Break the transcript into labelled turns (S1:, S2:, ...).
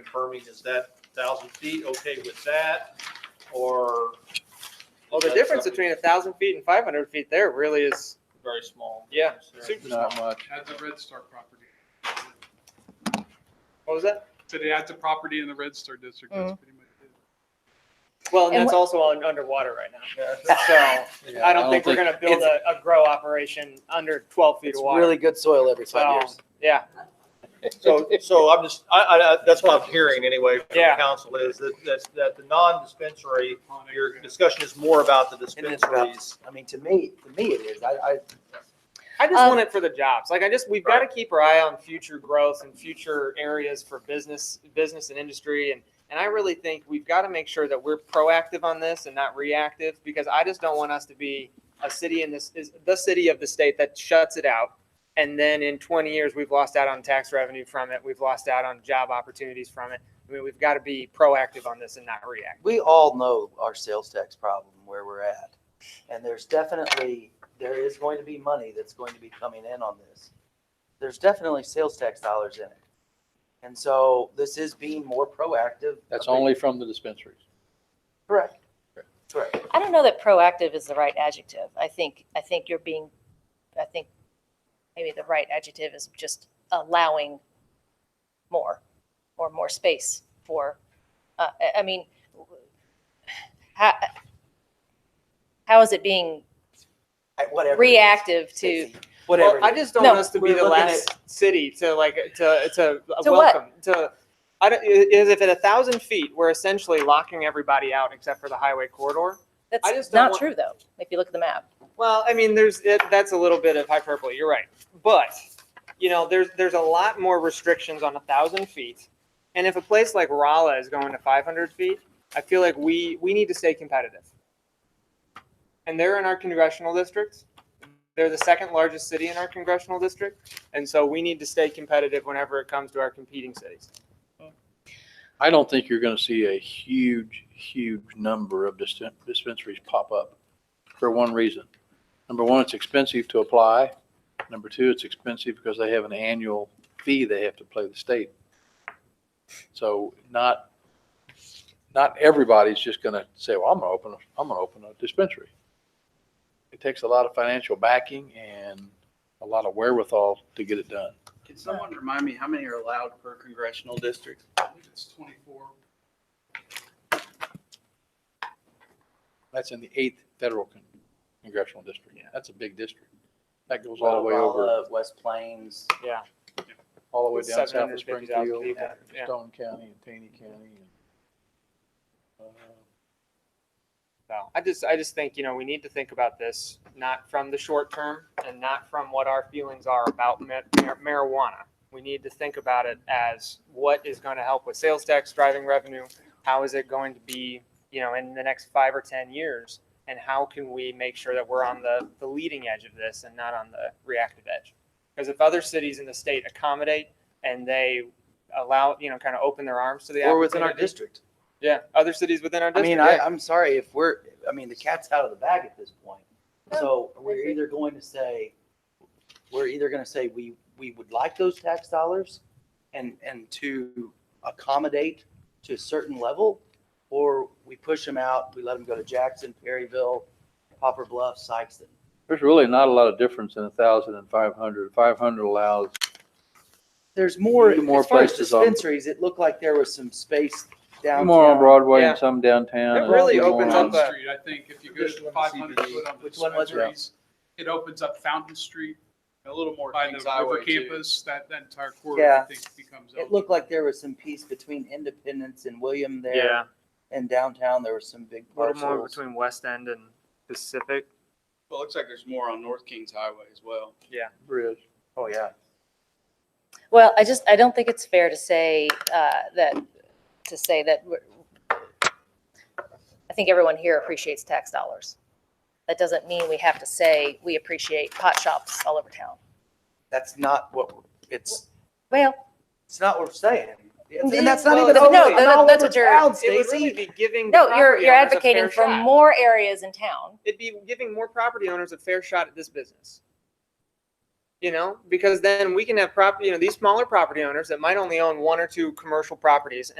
S1: confirming, is that thousand feet okay with that? Or
S2: Well, the
S1: That's
S2: difference
S1: something-
S2: between a thousand feet and five hundred feet there really is,
S1: very small?
S2: Yeah.
S1: difference there?
S2: Super
S3: Not much.
S4: At the Red Star property.
S2: what was that?
S4: Said it had the property in the Red Star district,
S2: Mm-hmm.
S4: that's pretty much it.
S2: Well, and
S5: And
S2: that's also on underwater right now. So
S3: Yeah,
S2: I don't think we're gonna build a, a grow operation under twelve feet
S6: It's
S2: of
S6: really
S2: water.
S6: good soil every five years.
S2: So, yeah,
S1: So, so I'm just, I, I, I- that's what I'm hearing anyway from the
S2: Yeah.
S1: council is that, that's, that the non-dispensary,
S4: Upon
S1: your
S4: it.
S1: discussion is more about the
S6: And it's about-
S1: dispensaries.
S6: I mean, to me, to me it is. I, I,
S2: I just
S5: Um,
S2: want it for the jobs. Like I just, we've got to keep our eye on future growth and future areas for business, business and industry. And, and I really think we've got to make sure that we're proactive on this and not reactive because I just don't want us to be a city in this, is the city of the state that shuts it out. And then in 20 years, we've lost out on tax revenue from it. We've lost out on job opportunities from it. I mean, we've got to be proactive on this and not react.
S6: we all know our sales tax problem where we're at. And there's definitely, there is going to be money that's going to be coming in on this. There's definitely sales tax dollars in it. And so this is being more proactive.
S3: That's only from the dispensaries.
S6: Correct. Correct.
S5: I don't know that proactive is the right adjective. I think, I think you're being, I think maybe the right adjective is just allowing more or more space for, uh, I, I mean, how, how is it being
S6: I- Whatever. it is.
S5: reactive to,
S6: It's- Whatever.
S2: Well, I
S6: it is.
S2: just don't
S5: No.
S2: want us to be
S6: We're
S2: the
S6: looking
S2: last city to like to to,
S5: To what?
S2: welcome to. I don't, is if at a thousand feet, we're essentially locking everybody out except for the highway corridor. I
S5: that's
S2: just don't
S5: not
S2: want-
S5: true though, if you look at the map.
S2: Well, I mean, there's it, that's a little bit of hyperbole. You're right, but you know, there's there's a lot more restrictions on a thousand feet, and if a place like Rolla is going to 500 feet, I feel like we we need to stay competitive. And they're in our congressional districts. They're the second largest city in our congressional district, and so we need to stay competitive whenever it comes to our competing cities.
S3: I don't think you're gonna see a huge, huge number of dispen- dispensaries pop up for one reason. Number one, it's expensive to apply. Number two, it's expensive because they have an annual fee they have to pay the state. So not, not everybody's just gonna say, well, I'm gonna open, a- I'm gonna open a dispensary. It takes a lot of financial backing and a lot of wherewithal to get it done.
S7: Can someone remind me how many are allowed per congressional district?
S4: I believe It's twenty-four.
S3: That's in the eighth federal con- congressional district. That's a big district. That goes all the way
S2: uh,
S3: over,
S6: Valhalla, West Plains.
S2: Yeah,
S3: all the way down south
S2: 750,000
S3: of Springfield,
S2: people, yeah.
S3: Stone County and Taney County. and, uh,
S2: so I just I just think you know we need to think about this not from the short term and not from what our feelings are about ma- mar- marijuana. We need to think about it as what is going to help with sales tax driving revenue. How is it going to be, you know, in the next five or ten years, and how can we make sure that we're on the the leading edge of this and not on the reactive edge? Because if other cities in the state accommodate and they allow, you know, kind of open their arms to the
S6: Or within our
S2: opportunity-
S6: district.
S2: yeah, other cities within our
S6: I
S2: district.
S6: mean,
S2: yeah.
S6: I, I'm sorry if we're, I mean, the cat's out of the bag at this point. So we're
S5: agree.
S6: either going to say, we're either gonna say we, we would like those tax dollars and, and to accommodate to a certain level, or we push them out, we let them go to Jackson, Perryville, Popper Bluff, Sykeston.
S3: There's really not a lot of difference in a thousand and five hundred. Five hundred allows,
S6: There's more,
S3: Maybe more
S6: as far as
S3: places on-
S6: dispensaries, it looked like there was some space down.
S3: more on Broadway
S2: Yeah.
S3: and some downtown.
S2: It
S3: and
S2: really
S3: some
S2: opens
S3: on-
S2: up a-
S4: Fountain Street, I think, if you go
S1: Which
S4: to
S1: one is
S4: five hundred
S1: CBD?
S4: foot on the
S6: Which one was it?
S4: dispensaries, it opens up Fountain Street
S7: A little more
S4: by the
S7: Kings Highway
S4: river
S7: too.
S4: campus, that, that entire corridor,
S6: Yeah.
S4: I think, becomes.
S6: It looked like there was some piece between Independence and William there.
S2: Yeah,
S6: And downtown, there were some big
S2: a little more
S6: parcels.
S2: between West End and Pacific.
S7: Well, it looks like there's more on North Kings Highway as well.
S3: Bridge.
S6: Oh, yeah.
S5: Well, I just, I don't think it's fair to say uh, that, to say that, we're- I think everyone here appreciates tax dollars. That doesn't mean we have to say we appreciate pot shops all over town.
S6: That's not what, we're- it's,
S5: Well,
S6: it's not what we're saying. It's-
S5: Then-
S6: And that's not
S2: well,
S6: even.
S2: no,
S6: over-
S2: no,
S6: it's
S5: that-
S6: all
S5: that's
S6: over
S5: what you're-
S6: town,
S2: It would
S6: Stacy.
S2: really be giving. the
S5: no, you're,
S2: property
S5: you're
S2: owners a
S5: advocating
S2: fair
S5: for
S2: shot.
S5: more areas in town.
S2: It'd be giving more property owners a fair shot at this business. You know, because then we can have property, you know, these smaller property owners that might only own one or two commercial properties